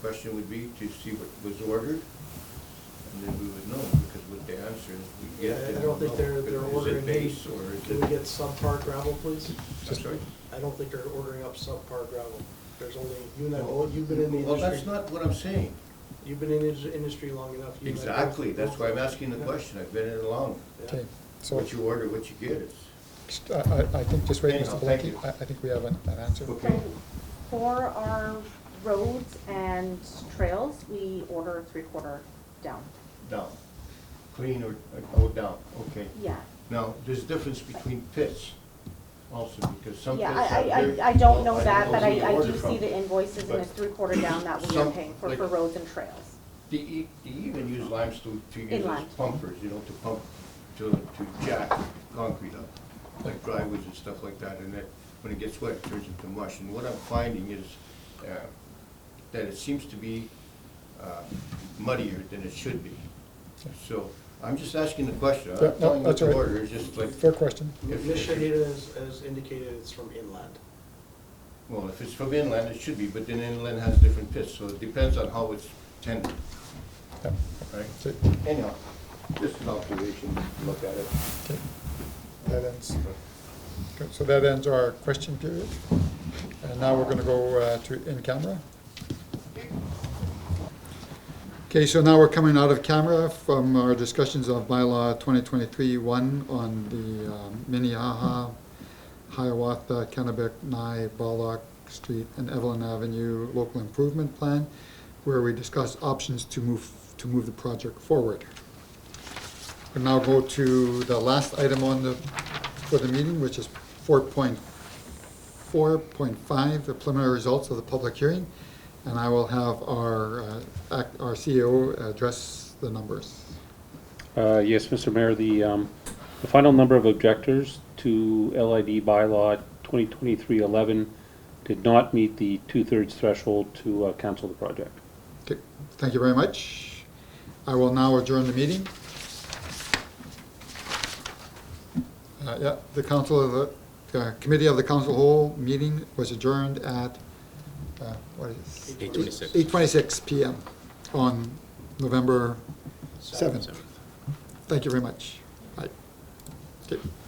question would be to see what was ordered, and then we would know, because with the answers we Yeah, get, then I we'll don't think know. they're, they're Is ordering. it base or is Can we it? get subpar gravel, please? I'm sorry? I don't think they're ordering up subpar gravel. There's only, you and I, Well, both- you've been in the Well, that's industry, not what I'm saying. you've been in the industry long enough. you and I both Exactly, that's why I'm know. asking the question, I've been in it long. Yeah. Okay, so, What you order, what you get, it's, just- I, I- I think, just wait, Anyhow, Mr. thank Belenki, you. I, I think we have an an answer. Okay. So for our roads and trails, we order three-quarter down. down, clean or, oh, down, okay. Yeah. Now, there's a difference between pits also, because some pits Yeah, have I- I, very- I, I don't know Well, that, don't but who I, you I order do see from. the invoices and But it's three-quarter down that we are some- paying for, like- for roads and trails. They, e- they even use limestone to use as Inline. pumpers, you know, to pump, to, to jack concrete up, like driveways and stuff like that, and that, when it gets wet, it turns into mush. And what I'm finding is, uh, that it seems to be, uh, muddier than it should be. So, I'm just asking the question, I'm Yeah, not no, telling you what that's to all right. order, it's just like, Fair question. If- Michigan has, has indicated it's from inland. well, if it's from inland, it should be, but then inland has different pits, so it depends on how it's tended, Yeah, right? that's it. Anyhow, just an observation, look at it. Okay. That ends, okay, so that ends our question period. And now we're gonna go uh, to in camera. Okay, so now we're coming out of camera from our discussions of bylaw 2023-1 on the um, Minnehaha, Hiawatha, Kennebec, Nye, Ballock Street, and Evelyn Avenue Local Improvement Plan, where we discussed options to move, to move the project forward. We now go to the last item on the, for the meeting, which is 4.4.5, the preliminary results of the public hearing. And I will have our, uh, act- our CEO address the numbers. Uh, Yes, Mr. Mayor, the, um, the final number of objectors to LID bylaw 2023-11 did not meet the two-thirds threshold to uh, cancel the project. Okay, thank you very much. I will now adjourn the meeting. Uh, Yeah, the council of the, the uh, committee of the council whole meeting was adjourned at, uh, what is? Eight twenty-six. Eight twenty-six PM on November seventh. Thank you very much. Bye. Okay.